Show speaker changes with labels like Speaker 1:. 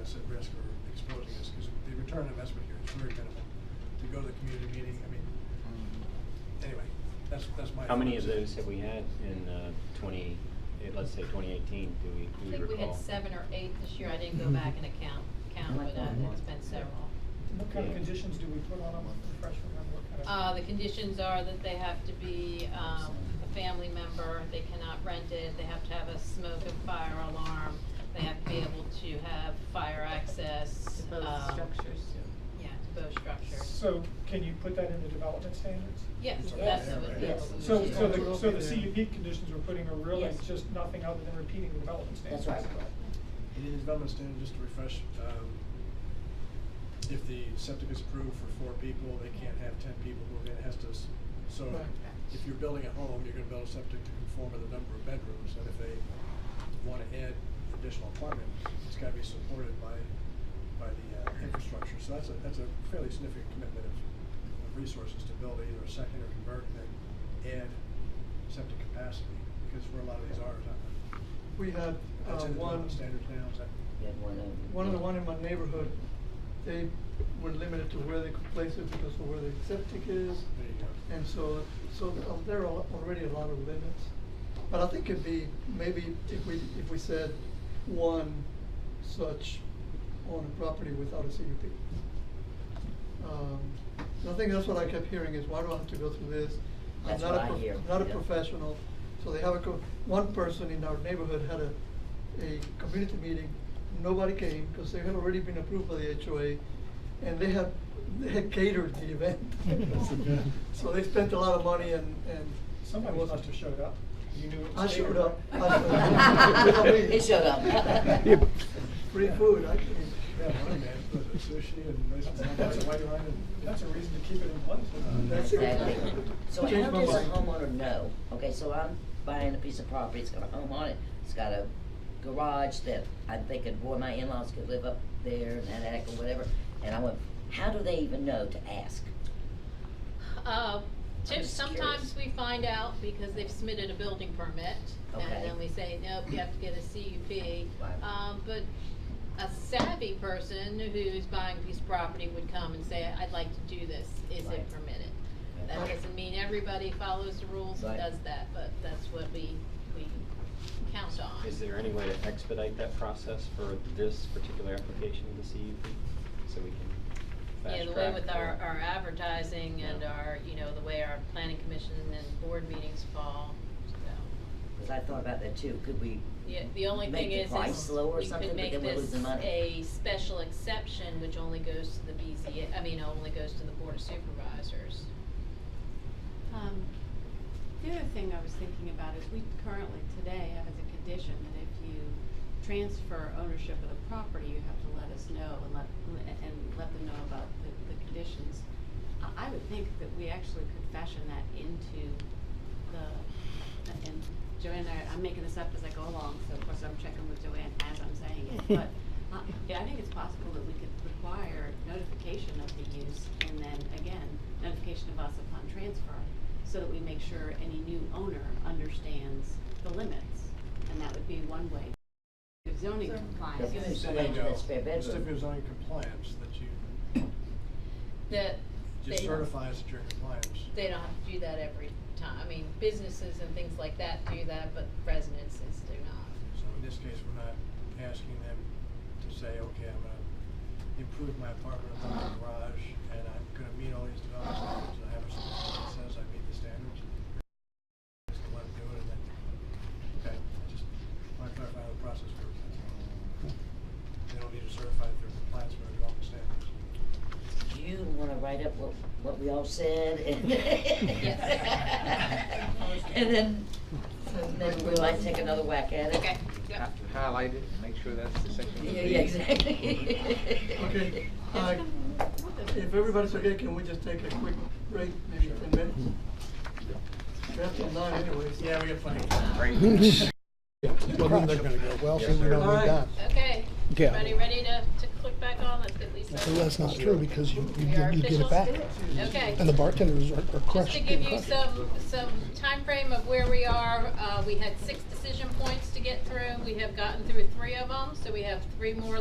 Speaker 1: us at risk or exposing us, because the return on investment here is very minimal. To go to the community meeting, I mean, anyway, that's, that's my.
Speaker 2: How many of
Speaker 1: thoughts.
Speaker 2: those have we had in uh, twenty, eh, let's say twenty eighteen, do we,
Speaker 3: I
Speaker 2: do we
Speaker 3: think
Speaker 2: recall?
Speaker 3: we had seven or eight this year, I didn't go back and account, count, but uh, it's been several.
Speaker 4: What kind of
Speaker 2: Yeah.
Speaker 4: conditions do we put on them, refresh remember what kind of?
Speaker 3: Uh, the conditions are that they have to be, um, a family member, they cannot rent it, they have to have a smoke and fire alarm, they have to be able to have fire access,
Speaker 5: Both
Speaker 3: um,
Speaker 5: structures.
Speaker 3: Yeah, to both structures.
Speaker 4: So can you put that in the development standards?
Speaker 3: Yes,
Speaker 1: Yeah.
Speaker 3: that's what we
Speaker 5: Yes.
Speaker 3: would
Speaker 4: So,
Speaker 3: do.
Speaker 4: so the, so the CUP conditions we're putting are really
Speaker 5: Yes.
Speaker 4: just nothing other than repeating the development standards?
Speaker 5: That's right.
Speaker 1: And in the development standard, just to refresh, um, if the septic is approved for four people, they can't have ten people move in, it has to, s- so
Speaker 4: Right.
Speaker 1: if you're building a home, you're gonna build a septic to conform with the number of bedrooms, and if they wanna add additional apartment, it's gotta be supported by, by the, uh, infrastructure, so that's a, that's a fairly significant commitment of, of resources to build either a second or convert and then add septic capacity, because where a lot of these are, is not,
Speaker 6: We had uh,
Speaker 1: that's in the
Speaker 6: one,
Speaker 1: development standards now, is that?
Speaker 5: We had one of.
Speaker 6: one of the one in my neighborhood, they were limited to where they could place it because of where the septic is.
Speaker 1: There you go.
Speaker 6: And so, so um, there are already a lot of limits. But I think it'd be, maybe if we, if we said one such on a property without a CUP. Um, and I think that's what I kept hearing is why do I have to go through this? I'm
Speaker 5: That's
Speaker 6: not a
Speaker 5: what I
Speaker 6: prof-
Speaker 5: hear,
Speaker 6: Not a
Speaker 5: yeah.
Speaker 6: professional, so they have a, co- one person in our neighborhood had a, a community meeting, nobody came, because they had already been approved by the HOA, and they had, they had catered the event. So they spent a lot of money and, and.
Speaker 4: Somebody
Speaker 6: it wasn't-
Speaker 4: must have showed up. You knew it
Speaker 6: I
Speaker 4: was catered.
Speaker 6: showed up. I showed up.
Speaker 5: It showed up.
Speaker 6: Free food, I can.
Speaker 1: Yeah, money man, but a sushi and nice
Speaker 4: That's a,
Speaker 1: white wine and.
Speaker 4: that's a reason to keep it in place.
Speaker 1: Uh,
Speaker 6: That's it.
Speaker 5: Exactly. So
Speaker 6: Change
Speaker 5: how
Speaker 6: my
Speaker 5: does a
Speaker 6: mind.
Speaker 5: homeowner know? Okay, so I'm buying a piece of property, it's got a home on it, it's got a garage that I'm thinking, boy, my in-laws could live up there and that attic or whatever. And I went, how do they even know to ask?
Speaker 3: Uh,
Speaker 5: I'm
Speaker 3: tips,
Speaker 5: just
Speaker 3: sometimes
Speaker 5: curious.
Speaker 3: we find out because they've submitted a building permit,
Speaker 5: Okay.
Speaker 3: and then we say, nope, you have to get a CUP.
Speaker 5: Right.
Speaker 3: Um, but a savvy person who's buying a piece of property would come and say, I'd like to do this, is it
Speaker 5: Right.
Speaker 3: permitted? That
Speaker 6: Okay.
Speaker 3: doesn't mean everybody follows the rules and
Speaker 5: Right.
Speaker 3: does that, but that's what we, we count on.
Speaker 2: Is there any way to expedite that process for this particular application of the CUP, so we can fast
Speaker 3: Yeah,
Speaker 2: track?
Speaker 3: the way with our,
Speaker 2: or-
Speaker 3: our advertising and
Speaker 2: Yeah.
Speaker 3: our, you know, the way our planning commission and board meetings fall, so.
Speaker 5: Cause I thought about that too, could we?
Speaker 3: Yeah, the only
Speaker 5: make
Speaker 3: thing
Speaker 5: the
Speaker 3: is,
Speaker 5: price
Speaker 3: is
Speaker 5: low or
Speaker 3: you
Speaker 5: something,
Speaker 3: could
Speaker 5: but
Speaker 3: make
Speaker 5: then we're
Speaker 3: this
Speaker 5: losing money.
Speaker 3: a special exception, which only goes to the BZA, I mean, only goes to the board of supervisors.
Speaker 7: Um, The other thing I was thinking about is we currently today have as a condition that if you transfer ownership of the property, you have to let us know and let, and let them know about the, the conditions. I, I would think that we actually could fashion that into the, and Joanne, I, I'm making this up as I go along, so of course I'm checking with Joanne as I'm saying it, but uh, yeah, I think it's possible that we could require notification of the use and then again, notification of us upon transfer, so that we make sure any new owner understands the limits. And that would be one way of zoning compliance.
Speaker 5: Give them
Speaker 1: There
Speaker 5: some
Speaker 1: you go.
Speaker 5: that's spare bedroom.
Speaker 1: Just if it was on compliance, that you,
Speaker 3: The,
Speaker 1: just
Speaker 3: they,
Speaker 1: certify us that you're in compliance.
Speaker 3: they don't have to do that every time, I mean, businesses and things like that do that, but residences do not.
Speaker 1: So in this case, we're not asking them to say, okay, I'm gonna improve my apartment, I'm gonna have a garage, and I'm gonna meet all these development standards, and I have a certificate that says I meet the standards. Just let them do it, and then, okay, just want to clarify how the process works. that's all. They don't need to certify their compliance with our development standards.
Speaker 5: Do you wanna write up what, what we all said and?
Speaker 3: Yes.
Speaker 5: And then, maybe we might take another whack at it.
Speaker 3: Okay, yep.
Speaker 8: have to highlight it and make sure that's the section.
Speaker 5: Yeah, yeah, exactly.
Speaker 6: Okay, I,
Speaker 9: Uh,
Speaker 6: if everybody's okay, can we just take a quick break, maybe ten minutes? We have till nine anyways.
Speaker 1: Yeah, we have plenty of
Speaker 8: Great.
Speaker 9: Well, then they're gonna go, well, see, we don't
Speaker 6: All
Speaker 9: need
Speaker 6: right.
Speaker 9: that.
Speaker 3: Okay,
Speaker 9: Yeah.
Speaker 3: everybody ready to, to click back on, let's get Lisa.
Speaker 9: So that's not true, because you, you
Speaker 3: We are
Speaker 9: get you get it
Speaker 3: officials.
Speaker 9: back.
Speaker 3: Okay.
Speaker 9: And the bartenders are are
Speaker 3: Just
Speaker 9: crushed.
Speaker 3: to
Speaker 9: getting
Speaker 3: give you
Speaker 9: crushed.
Speaker 3: some, some timeframe of where we are, uh, we had six decision points to get through. We have gotten through three of them, so we have three more